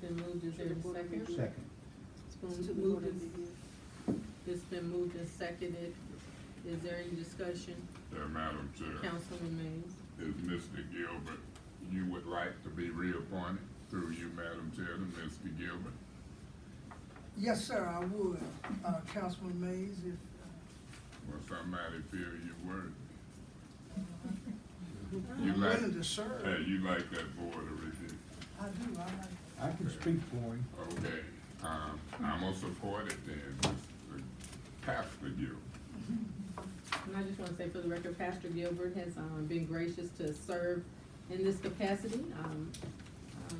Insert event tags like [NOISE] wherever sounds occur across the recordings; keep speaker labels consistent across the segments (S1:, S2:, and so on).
S1: been moved, is there a second?
S2: Second.
S1: It's been moved, and- it's been moved and seconded. Is there any discussion?
S3: Uh, Madam Chair,
S1: Councilman Mays?
S3: is Mr. Gilbert, you would like to be reappointed through you, Madam Chair, to Mr. Gilbert?
S4: Yes, sir, I would, uh, Councilman Mays, if, uh,
S3: Or somebody feel you worthy? You
S4: I'm
S3: like,
S4: willing to
S3: hey,
S4: serve.
S3: you like that board of review?
S4: I do, I like,
S2: I can speak for him.
S3: Okay, um, I'm gonna support it then, Mr. Pastor Gilbert.
S1: And I just want to say for the record, Pastor Gilbert has um, been gracious to serve in this capacity. Um,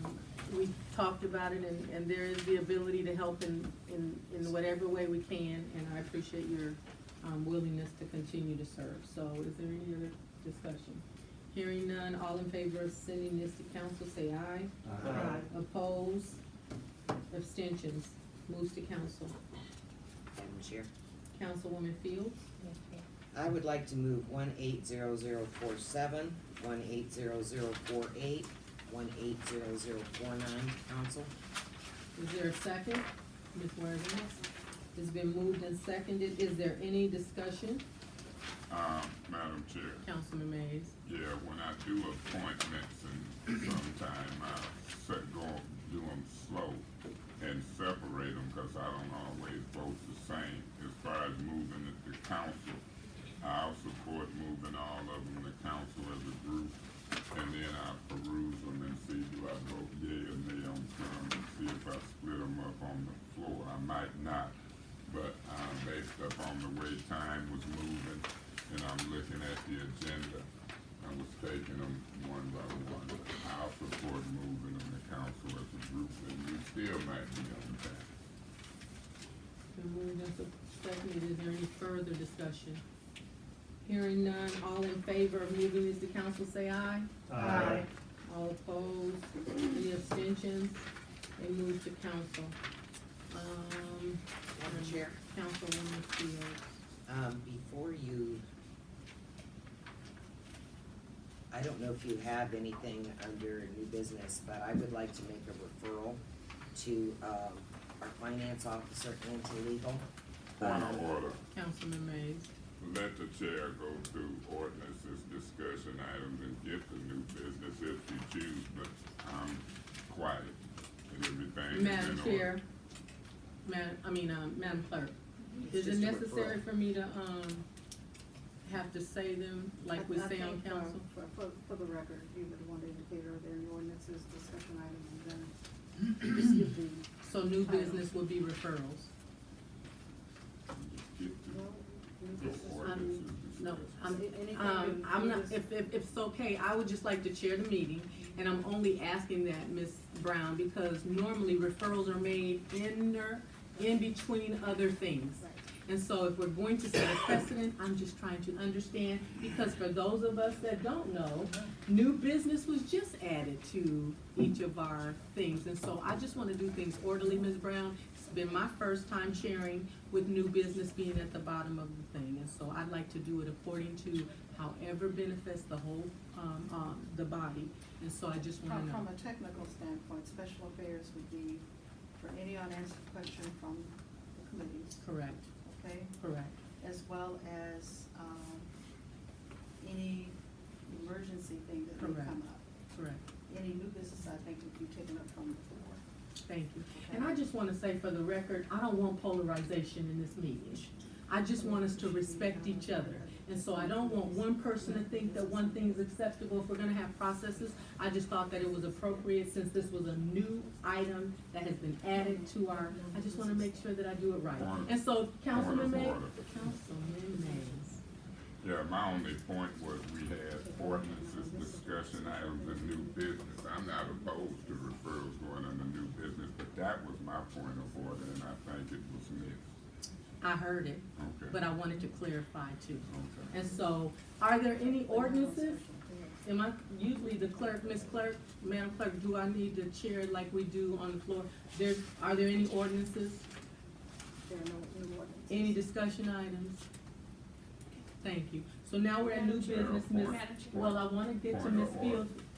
S1: um, We talked about it, and, and there is the ability to help in, in, in whatever way we can, and I appreciate your um, willingness to continue to serve. So is there any other discussion? Hearing none, all in favor of sending this to council, say aye.
S2: Aye.
S1: Oppose, abstentions, moves to council.
S5: Madam Chair,
S1: Councilwoman Fields?
S5: I would like to move one eight zero zero four seven, one eight zero zero four eight, one eight zero zero four nine, council.
S1: Is there a second? Ms. Worthing? It's been moved and seconded. Is there any discussion?
S3: Um, Madam Chair,
S1: Councilman Mays?
S3: yeah, when I do appointments and sometime I set, go, do them slow and separate them, cause I don't always vote the same. As far as moving it to council, I'll support moving all of them to council as a group. And then I peruse them and see do I vote yea or nay on some, and see if I split them up on the floor. I might not, but, uh, based upon the way time was moving and I'm looking at the agenda, I was taking them one by one. I'll support moving them to council as a group and we still might be on that.
S1: Been moved and sup- seconded. Is there any further discussion? Hearing none, all in favor of moving this to council, say aye.
S2: Aye.
S1: All opposed, any abstentions? They move to council. Um,
S5: Madam Chair,
S1: Councilwoman Fields.
S5: um, before you, I don't know if you have anything under new business, but I would like to make a referral to, um, our finance officer and to legal.
S3: Point of order,
S1: Councilman Mays.
S3: let the chair go through ordinances, discussion items and get the new business if you choose, but I'm quiet and everything is in
S1: Madam
S3: order.
S1: Chair, Madam, I mean, um, Madam Clerk, is it
S5: It's just a
S1: necessary
S5: referral.
S1: for me to, um, have to say them like we
S6: I- I
S1: say on
S6: think, uh,
S1: council?
S6: For, for, for the record, you would want to indicate are there any ordinances, discussion items, and
S1: [CLEARS THROAT]
S6: then just give the,
S1: So new business would be referrals.
S3: Just get
S6: well, new
S3: the- the
S6: business.
S3: ordinances,
S1: um, No,
S3: discussion.
S1: I'm,
S6: Anything
S1: um,
S6: that
S1: I'm
S6: you
S1: not,
S6: just-
S1: if, if, if it's okay, I would just like to chair the meeting, and I'm only asking that, Ms. Brown, because normally referrals are made in there, in between other things.
S6: Right.
S1: And so if we're going to set a precedent, I'm just trying to understand, because for those of us that don't know, new business was just added to each of our things, and so I just wanna do things orderly, Ms. Brown. It's been my first time sharing with new business being at the bottom of the thing, and so I'd like to do it according to however benefits the whole, um, um, the body, and so I just wanna
S6: From, from
S1: know.
S6: a technical standpoint, special affairs would be for any unanswered question from the committees,
S1: Correct,
S6: okay?
S1: correct.
S6: As well as, um, any emergency thing that would
S1: Correct.
S6: come up.
S1: Correct,
S6: Any new business, I think, would be taken up from the floor.
S1: thank you. And I just wanna say for the record, I don't want polarization in this meeting. I just want us to respect each other. And so I don't want one person to think that one thing's acceptable if we're gonna have processes. I just thought that it was appropriate since this was a new item that has been added to our, I just wanna make sure that I do it right. And so, Councilman May, Councilman Mays.
S3: Yeah, my only point was we had ordinances, discussion items, and new business. I'm not opposed to referrals going under new business, but that was my point of order, and I think it was missed.
S1: I heard it, but
S3: Okay.
S1: I wanted to clarify too.
S3: Okay.
S1: And so, are there any ordinances
S6: Special affairs.
S1: Am I, usually the clerk, Miss Clerk, Madam Clerk, do I need to chair like we do on the floor? There's, are there any ordinances,
S6: There are no new ordinances.
S1: any discussion items? Thank you. So now we're at new
S3: Madam Chair,
S1: business, Miss.
S3: point-
S1: Well, I wanna get to
S3: point
S1: Miss
S3: of order.
S1: Fields.